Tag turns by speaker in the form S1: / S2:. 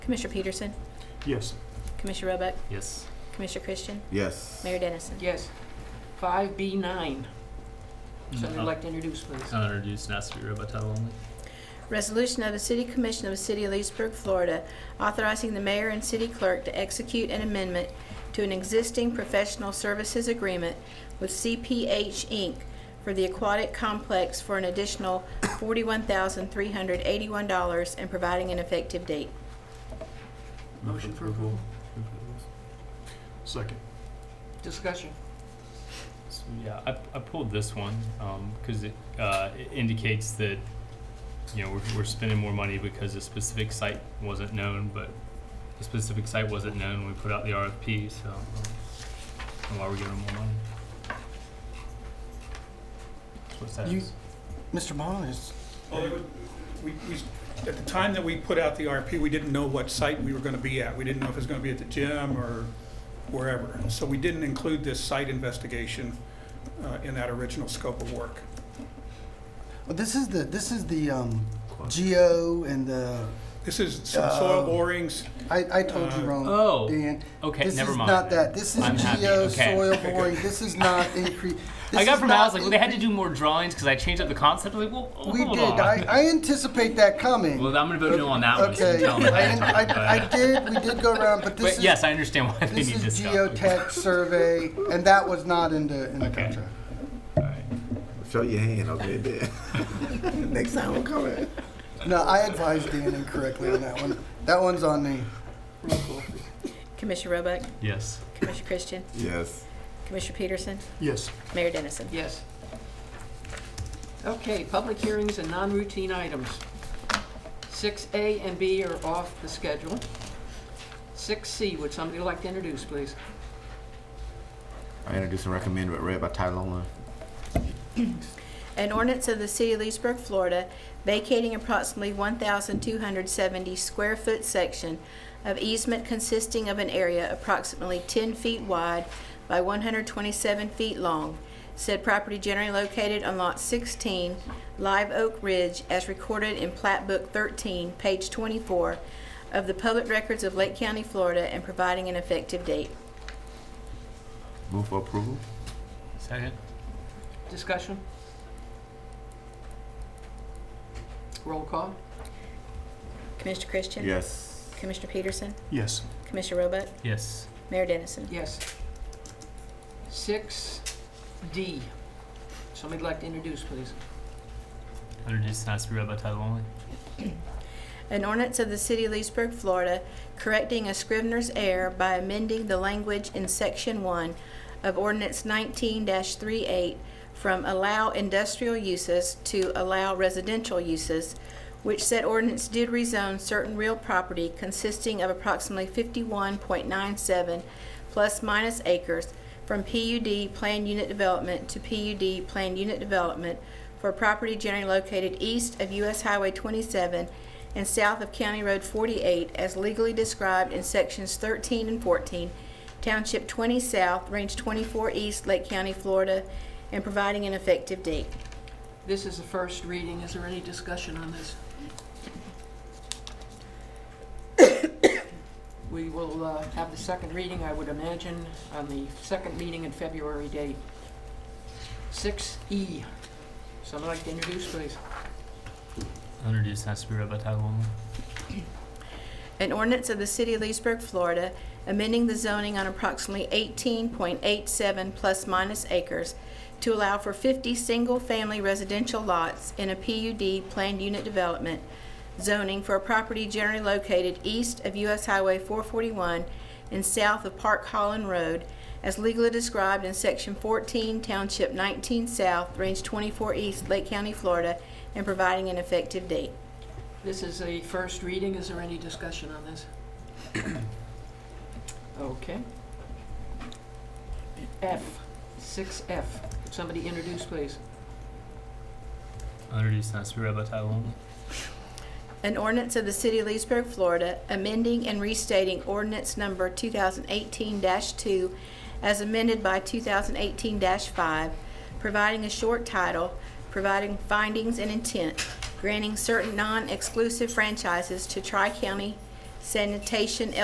S1: Commissioner Peterson,
S2: Yes.
S1: Commissioner Roebuck,
S3: Yes.
S1: Commissioner Christian,
S4: Yes.
S1: Mayor Dennison.
S5: Yes. Five B nine, somebody would
S3: I'll-
S5: like to introduce, please.
S3: I'll introduce and ask to be read by title only.
S1: Resolution of the City Commission of the City of Leesburg, Florida, authorizing the mayor and city clerk to execute an amendment to an existing professional services agreement with CPH Inc. for the aquatic complex for an additional $41,381 and providing an effective date.
S5: Motion Oh, for approval.
S2: Second.
S5: Discussion.
S3: So, yeah, I, I pulled this one because it, uh, it indicates that you know we're, we're spending more money because a specific site wasn't known, but the specific site wasn't known when we put out the RFP. So um, and why we're giving them more money? That's what it says.
S4: You- Mr. Bond is.
S6: Well, it would- we, we, at the time that we put out the RFP, we didn't know what site we were gonna be at. We didn't know if it was gonna be at the gym or wherever. So we didn't include this site investigation, uh, in that original scope of work.
S4: Well, Oh, this is the this is the um, geo and the
S6: This is some soil
S4: Uh,
S6: borings.
S4: I, I told you
S6: Uh,
S4: wrong.
S3: oh,
S4: Dan.
S3: okay,
S4: This
S3: never
S4: is
S3: mind
S4: not
S3: then.
S4: that. This is
S3: I'm happy,
S4: geo
S3: okay.
S4: soil boring. This is not increase.
S3: I got from out, I was like, well, they had to do more drawings because I changed up the concept. I was like, well,
S4: We
S3: hold
S4: did.
S3: on.
S4: I, I anticipate that coming.
S3: well, I'm gonna vote no on that one. so
S4: okay.
S3: tell me.
S4: I, I, I did. We did go around, but this
S3: But
S4: is
S3: yes, I understand why they
S4: this
S3: need this
S4: is
S3: stuff.
S4: geotech survey, and that was not in the in the
S3: Okay.
S4: contract.
S3: All right.
S7: Show your hand, okay, then. Next time I'm coming.
S4: No, I advised Dan incorrectly on that one. That one's on me.
S5: Roll call, please.
S1: Commissioner Roebuck,
S3: Yes.
S1: Commissioner Christian,
S7: Yes.
S1: Commissioner Peterson,
S2: Yes.
S1: Mayor Dennison.
S5: Yes. Okay, public hearings and non-routine items. Six A and B are off the schedule. Six C, would somebody like to introduce, please?
S7: I introduce and recommend it read by title only.
S1: An ordinance of the City of Leesburg, Florida, vacating approximately 1,270 square foot section of easement consisting of an area approximately 10 feet wide by 127 feet long. Said property generally located on Lot 16, Live Oak Ridge, as recorded in Plat Book 13, page 24 of the Public Records of Lake County, Florida, and providing an effective date.
S7: Move for approval?
S3: Second.
S5: Discussion? Roll call?
S1: Commissioner Christian?
S7: Yes.
S1: Commissioner Peterson?
S2: Yes.
S1: Commissioner Roebuck?
S3: Yes.
S1: Mayor Dennison?
S5: Yes. Six D, somebody like to introduce, please?
S3: Introduced and asked to be read by title only.
S1: An ordinance of the City of Leesburg, Florida, correcting a scrivener's error by amending the language in Section 1 of Ordinance 19-38 from allow industrial uses to allow residential uses, which said ordinance did rezone certain real property consisting of approximately 51.97 plus minus acres from PUD planned unit development to PUD planned unit development for property generally located east of US Highway 27 and south of County Road 48 as legally described in sections 13 and 14, Township 20 South, Range 24 East, Lake County, Florida, and providing an effective date.
S5: This is the first reading, is there any discussion on this? We will uh, have the second reading, I would imagine, on the second meeting in February date. Six E, someone like to introduce, please?
S3: Introduced and asked to be read by title only.
S1: An ordinance of the City of Leesburg, Florida, amending the zoning on approximately 18.87 plus minus acres to allow for 50 single-family residential lots in a PUD planned unit development zoning for a property generally located east of US Highway 441 and south of Park Holland Road, as legally described in Section 14, Township 19 South, Range 24 East, Lake County, Florida, and providing an effective date.
S5: This is a first reading, is there any discussion on this? Okay. F, six F, somebody introduce, please?
S3: Introduced and asked to be read by title only.
S1: An ordinance of the City of Leesburg, Florida, amending and restating ordinance number 2018-2 as amended by 2018-5, providing a short title, providing findings and intent, granting certain non-exclusive franchises to Tri-County Sanitation